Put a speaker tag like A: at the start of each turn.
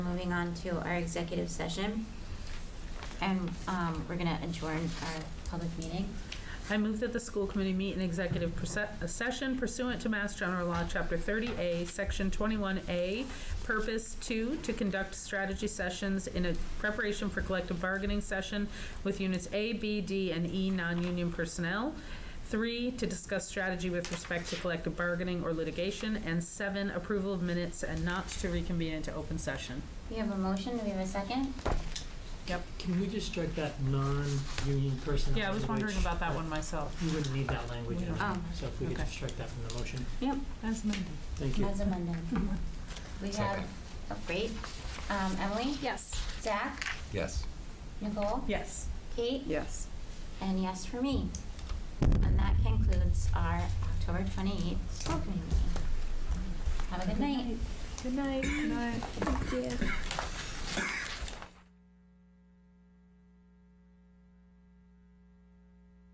A: moving on to our executive session. And, um, we're gonna adjourn our public meeting.
B: I move that the school committee meet in executive perse- session pursuant to Mass General Law, Chapter 30A, Section 21A, Purpose 2, to conduct strategy sessions in a preparation for collective bargaining session with units A, B, D, and E non-union personnel. 3, to discuss strategy with respect to collective bargaining or litigation. And 7, approval of minutes and not to reconvene into open session.
A: We have a motion, do we have a second?
B: Yep.
C: Can we just strike that non-union personnel?
B: Yeah, I was wondering
C: language?
B: about that one myself.
C: You wouldn't need that language
A: Oh,
C: anyway, so if we could
B: okay.
C: just strike that from the motion.
B: Yep. As amended.
C: Thank you.
A: As amended. We have,
D: Second.
A: oh, great. Um, Emily?
E: Yes.
A: Zach?
D: Yes.
A: Nicole?
B: Yes.
A: Kate?
E: Yes.
A: And yes for me. And that concludes our October 28th school committee meeting. Have a good night.
E: Good night. Good night. Thank you.